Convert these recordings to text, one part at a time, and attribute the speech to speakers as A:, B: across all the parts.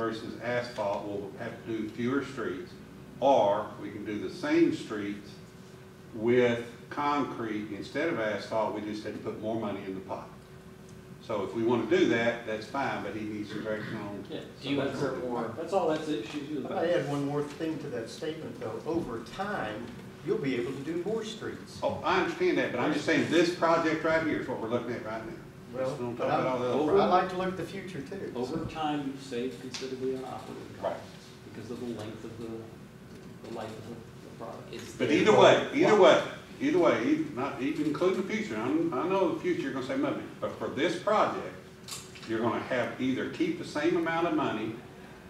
A: versus asphalt, we'll have to do fewer streets. Or we can do the same streets with concrete instead of asphalt, we just had to put more money in the pot. So if we want to do that, that's fine, but he needs some direction on.
B: Yeah, do you insert more, that's all that's the issue
C: I
B: about.
C: add one more thing to that statement, though. Over time, you'll be able to do more streets.
A: Oh, I understand that, but I'm just saying this project right here is what we're looking at right now.
C: Well,
A: Don't talk
C: but
A: about all the other
C: I I like to look at the future, too.
B: Over time, you save considerably on operating
A: Right.
B: costs because of the length of the, the life of the- the product. It's-
A: But either way, either way, either way, e- not even including the future, I'm, I know the future, you're gonna save money, but for this project, you're gonna have, either keep the same amount of money,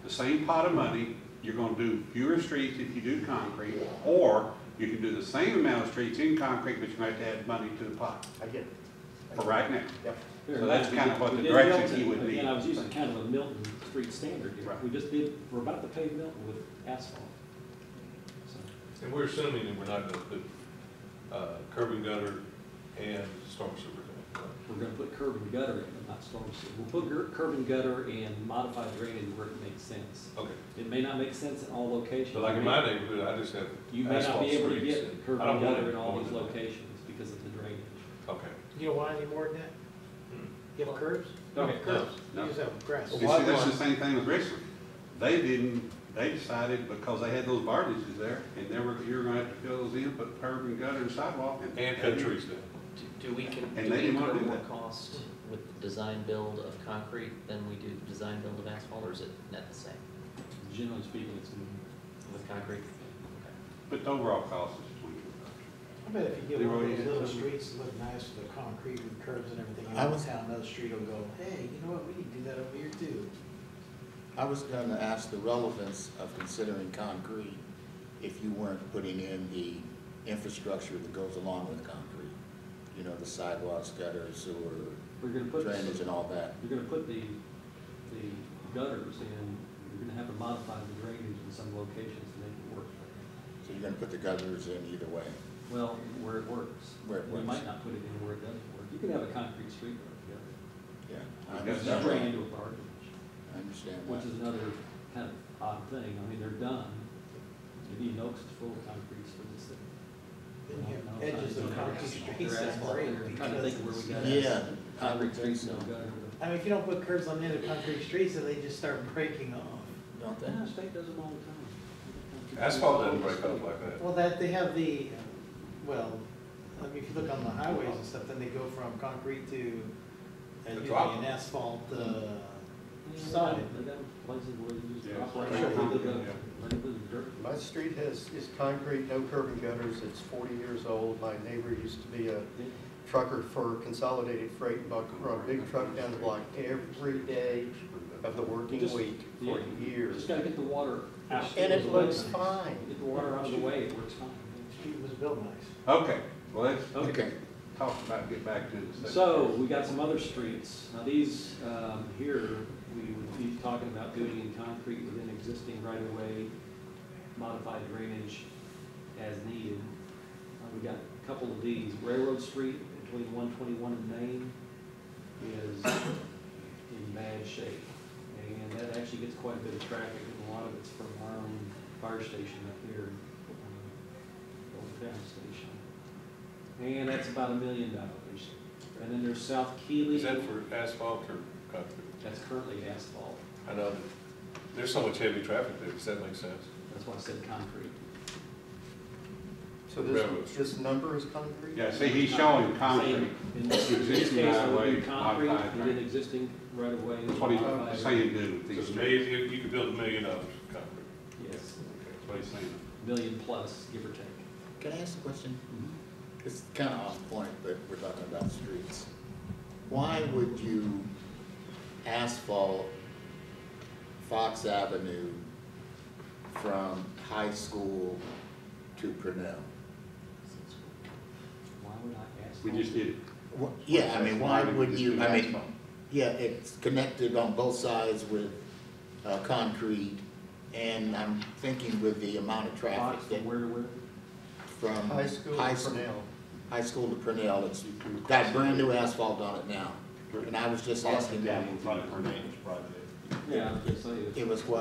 A: the same pot of money, you're gonna do fewer streets if you do concrete, or you can do the same amount of streets in concrete, but you might have to add money to the pot,
C: I get it.
A: for right now.
C: Yep.
B: Fair
A: So
B: enough.
A: that's kind of what
B: We
A: the
B: did
A: direction
B: Milton.
A: he would need.
B: Again, I was using kind of a Milton Street standard here.
A: Right.
B: We just did, we're about to pave Milton with asphalt. So,
D: And we're assuming that we're not gonna put, uh, curb and gutter and storm sewer in.
B: We're gonna put curb and gutter in, but not storm sewer. We'll put gur- curb and gutter and modified drainage where it makes sense.
D: Okay,
B: It may not make sense in all locations.
D: so like in my neighborhood, I just have
B: You may not
D: asphalt
B: be able to
D: streets.
B: get curb
D: I don't
B: and
D: want
B: gutter
D: it
B: in all
D: going
B: these
D: to that.
B: locations because of the drainage.
D: Okay.
E: You don't want any more than that? You have curbs?
B: Hmm. No,
D: curbs.
E: You just have grass.
A: You see, that's the same thing with Richland. They didn't, they decided because they had those barges there, and they were, you're gonna have to fill those in, put curb and gutter and sidewalk.
D: And cut trees down.
F: Do- Do we, can,
A: And
F: do
A: they
F: we
A: didn't wanna
F: incur
A: do
F: more
A: that.
F: cost with the design build of concrete than we do the design build of asphalt, or is it net the same
B: Generally speaking, it's gonna be
F: with concrete?
A: But the overall cost is twenty.
E: I bet if you get one
A: Leroy,
E: of
A: you
E: those
A: had
E: little
A: something?
E: streets that look nice with the concrete with curbs and everything,
G: I
E: out
G: was-
E: of town, another street will go, hey, you know what, we need to do that over here too.
G: I was gonna ask the relevance of considering concrete if you weren't putting in the infrastructure that goes along with concrete. You know, the sidewalks, gutters, sewer,
B: We're gonna put,
G: drainage
B: you're
G: and all that.
B: gonna put the, the gutters in, you're gonna have to modify the drainage in some locations to make it work.
G: So you're gonna put the gutters in either way.
B: Well, where it works.
G: Where it
B: We
G: works.
B: might not put it in where it doesn't work. You can have a concrete street road,
G: Yeah.
A: Yes,
G: I
B: yeah.
A: that's
B: You drain
G: understand
B: into
G: that.
B: a barge,
G: I understand
B: which is
G: that.
B: another kind of odd thing. I mean, they're done. You need oaks to full of concrete streets.
E: Then you have edges of concrete streets
B: They're
E: that break.
B: asphalt. I'm trying to think of where we got.
E: because-
G: Yeah, I
B: Concrete
G: would think
B: streets, no
G: so.
B: gutter.
E: I mean, if you don't put curbs on the end of concrete streets, then they just start breaking off.
G: Don't they?
B: Yeah, state does them all the time.
D: Asphalt doesn't break up like that.
E: Well, that, they have the, well, I mean, if you look on the highways and stuff, then they go from concrete to, uh,
D: The
E: usually
D: drop.
E: an asphalt, uh,
B: Solid.
E: side.
B: They got places where you just
A: Yeah.
B: drop
A: Sure.
B: right into the, right into the dirt.
H: My street has, is concrete, no curb and gutters, it's forty years old. My neighbor used to be a trucker for Consolidated Freight and Buck, brought a big truck down the block every day of the working
B: Just-
H: week for
B: yeah.
H: years.
B: Just gotta get the water out.
H: And it
B: Those
H: looks
B: ways.
H: fine.
B: Get the water out of the way, it works fine.
E: Street was built nice.
A: Okay, well, let's
G: Okay.
A: talk about, get back to the.
B: So, we got some other streets. Now, these, um, here, we would be talking about doing in concrete within existing right-of-way, modified drainage as needed. Uh, we got a couple of these. Railroad Street between one twenty-one and Main is in bad shape. And that actually gets quite a bit of traffic, and a lot of it's from our own fire station up here, um, old town station. And that's about a million dollars. And then there's South Keely,
D: Is that for asphalt or concrete?
B: that's currently asphalt,
D: I know that there's so much heavy traffic there, does that make sense?
B: that's why I said concrete.
H: So
D: Railroads.
H: this, this number is concrete?
A: Yeah, see, he's showing concrete.
B: In this in this
A: Existing
B: case, I would do
A: right-of-way,
B: concrete,
A: modified
B: and then
A: drainage.
B: existing right of way.
A: That's what he's saying do with these
D: Because
A: streets.
D: maybe you could build a million dollars of concrete.
B: Yes,
A: That's what he's saying.
B: million plus, give or take.
G: Can I ask a question?
A: Mm-hmm.
G: It's kind of off point, but we're talking about streets. Why would you asphalt Fox Avenue from high school to Purnell?
B: Why would I ask?
A: We
B: that?
A: just did it.
G: Wha- Yeah, I mean, why would
A: Just
G: you,
A: do
G: I mean,
A: asphalt.
G: yeah, it's connected on both sides with, uh, concrete, and I'm thinking with the amount of
B: Box
G: traffic
B: from
G: that
B: where to where?
G: from.
H: High school
G: high
H: for
G: school-
H: now.
G: High school to Purnell, it's
A: You come across
G: got brand new asphalt on it now, and I was just asking
A: the
G: that.
A: dam in front of Purnell.
I: Yeah, I was gonna say, it's-
B: It was what